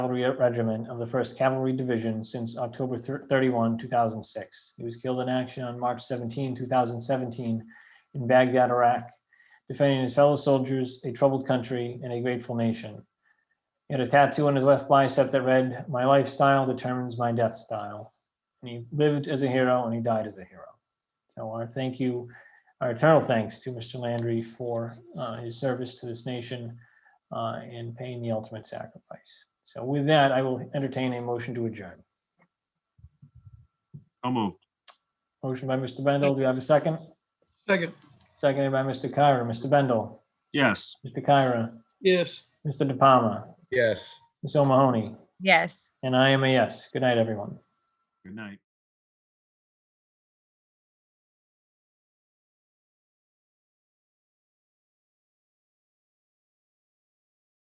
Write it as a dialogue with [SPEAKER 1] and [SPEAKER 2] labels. [SPEAKER 1] Cavalry Regiment of the First Cavalry Division since October thir- 31, 2006. He was killed in action on March 17, 2017 in Baghdad, Iraq, defending his fellow soldiers, a troubled country, and a grateful nation. He had a tattoo on his left bicep that read, "My lifestyle determines my death style." And he lived as a hero and he died as a hero. So our thank you, our eternal thanks to Mr. Landry for uh, his service to this nation uh, and paying the ultimate sacrifice. So with that, I will entertain a motion to adjourn.
[SPEAKER 2] So moved.
[SPEAKER 1] Motion by Mr. Bendel. Do you have a second?
[SPEAKER 3] Second,
[SPEAKER 1] Seconded by Mr. Kyra. Mr. Bendel,
[SPEAKER 2] Yes.
[SPEAKER 1] Mr. Kyra,
[SPEAKER 3] yes.
[SPEAKER 1] Mr. De Palma,
[SPEAKER 4] Yes.
[SPEAKER 1] Ms. O'Mahony,
[SPEAKER 5] Yes.
[SPEAKER 1] and I am a yes. Good night, everyone.
[SPEAKER 2] Good night.